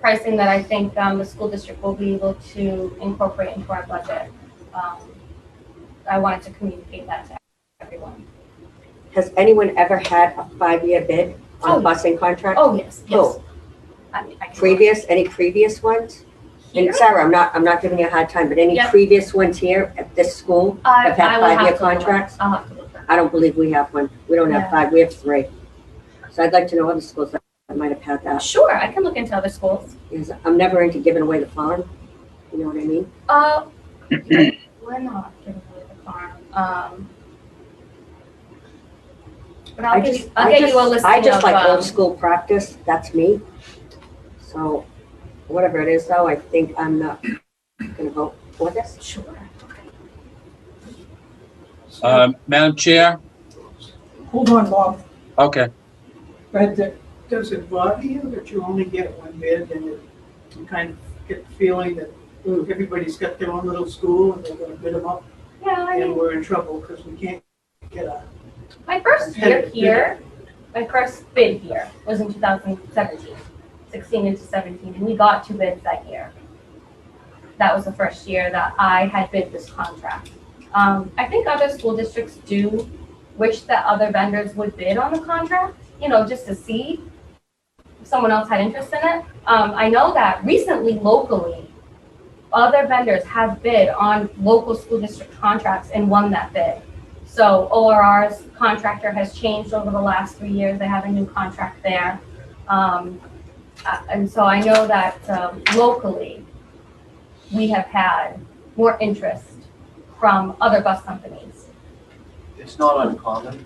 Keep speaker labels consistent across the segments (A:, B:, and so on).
A: pricing that I think um, the school district will be able to incorporate into our budget. Um, I wanted to communicate that to everyone.
B: Has anyone ever had a five-year bid on a
A: Oh.
B: busing contract?
A: Oh, yes, yes.
B: Who?
A: I mean, I can-
B: Previous, any previous ones?
A: Here?
B: And Sarah, I'm not, I'm not giving you a hard time, but any
A: Yep.
B: previous ones here at this school?
A: I,
B: Have had
A: Uh, I will have to.
B: five-year
A: look.
B: contracts?
A: I'll have to look. that.
B: I don't believe we have one. We don't have
A: Yeah.
B: five, we have three. So I'd like to know other schools that might have had that.
A: Sure, I can look into other schools.
B: Because I'm never into giving away the farm, you know what I mean?
A: Uh, we're not giving away the farm. Um, but I'll
B: I
A: get
B: just-
A: you, I'll
B: I
A: get
B: just-
A: you a listing
B: I just
A: of,
B: like
A: um,
B: old school practice, that's me. So, whatever it is though, I think I'm not gonna vote for this.
A: Sure.
C: Uh, Madam Chair,
D: Hold on, Bob,
C: okay,
D: but uh, does it bother you that you only get one bid and you- you kind of get the feeling that ooh, everybody's got their own little school and they're gonna bid them up
A: Yeah, I
D: and
A: mean,
D: we're in trouble because we can't get a.
A: my first year here, my first bid here was in 2017, 16 into 17, and we got two bids that year. That was the first year that I had bid this contract. Um, I think other school districts do wish that other vendors would bid on the contract, you know, just to see if someone else had interest in it. Um, I know that recently locally, other vendors have bid on local school district contracts and won that bid. So ORR's contractor has changed over the last three years. They have a new contract there. Um, uh, And so I know that um, locally, we have had more interest from other bus companies.
E: it's not uncommon.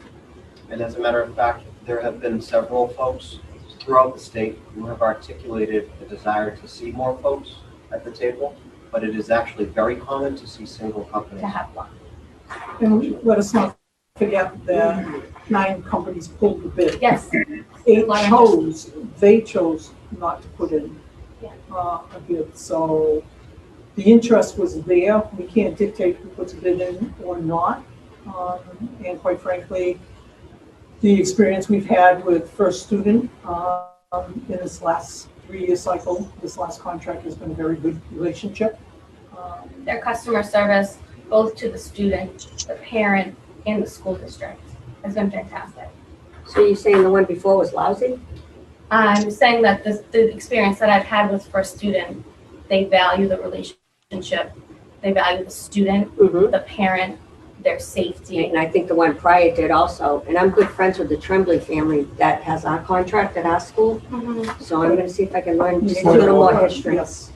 E: And as a matter of fact, there have been several folks throughout the state who have articulated a desire to see more folks at the table, but it is actually very common to see single companies.
A: to have one.
F: And let us not forget the nine companies pulled the bid.
A: Yes,
F: Eight chose, they chose not to put in
A: Yeah.
F: uh, a bid. So the interest was there. We can't dictate who puts a bid in or not. Um, And quite frankly, the experience we've had with First Student um, in this last three-year cycle, this last contract has been a very good relationship. Um,
A: their customer service, both to the student, the parent, and the school district, has been fantastic.
B: So you're saying the one before was lousy?
A: I'm saying that this, the experience that I've had with First Student, they value the relationship, they value the student,
B: Mm-hmm.
A: the parent, their safety.
B: And I think the one prior did also, and I'm good friends with the Tremblay family that has our contract at our school,
A: Mhm.
B: so I'm gonna see if I can learn just a
F: Yes.
B: little more history.
F: Yes.
B: That's,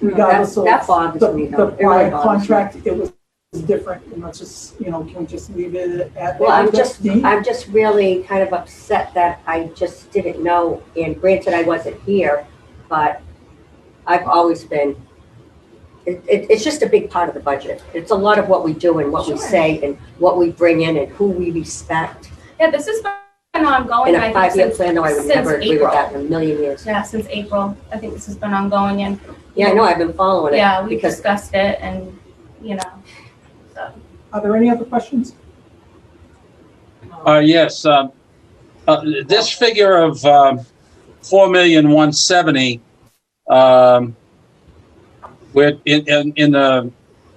F: Regardless of
B: Mm, that
F: the,
B: bothers me though,
F: the
B: it really
F: prior
B: bothers me.
F: contract, it was different, and let's just, you know, can we just leave it at?
B: Well, I'm
F: that?
B: just,
F: The-
B: I'm just really kind of upset that I just didn't know, and granted, I wasn't here, but I've always been, it, it, it's just a big part of the budget. It's a lot of what we do and what we
A: Sure.
B: say and what we bring in and who we respect.
A: Yeah, this has been ongoing,
B: In
A: Oh, I
B: a
A: think,
B: five-year
A: since,
B: plan, though, I would
A: since
B: never agree
A: April.
B: with that in a million years.
A: yeah, since April. I think this has been ongoing and,
B: Yeah, I know, I've been following it.
A: yeah, we
B: because-
A: discussed it and, you know, so.
F: Are there any other questions?
C: uh, yes, um, uh, this figure of, um, four million one seventy, um, with, in, in, in the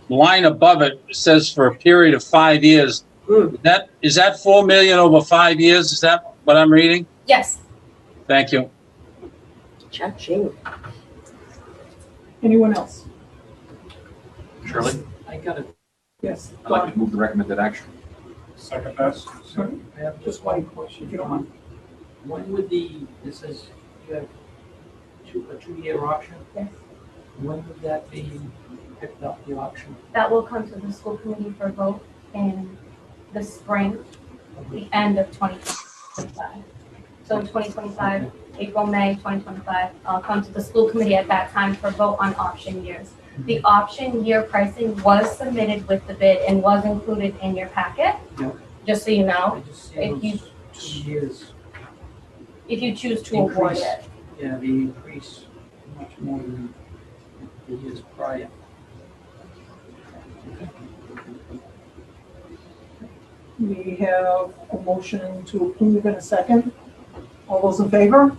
C: line above it says for a period of five years.
B: Hmm.
C: That, is that four million over five years? Is that what I'm reading?
A: Yes,
C: Thank you.
B: Cha-ching.
F: Anyone else?
G: Shirley, I got it.
F: Yes.
G: I'd like to move the recommended action.
H: Second best.
F: Don, I have uh, just one question, if you don't mind.
I: When would the, this is, you have two, a two-year option?
A: Yes.
I: When would that be picked up, the auction?
A: that will come to the school committee for vote in the spring, the end of 2025. So in 2025, April, May 2025, I'll come to the school committee at that time for vote on option years. The
I: Mm-hmm.
A: option year pricing was submitted with the bid and was included in your packet,
I: Yep.
A: just so you know,
I: I just see
A: If you-
I: those two years,
A: if you choose to award
I: Increase.
A: it.
I: yeah, the increase much more than the years prior.
F: We have a motion to approve in a second. All those in favor?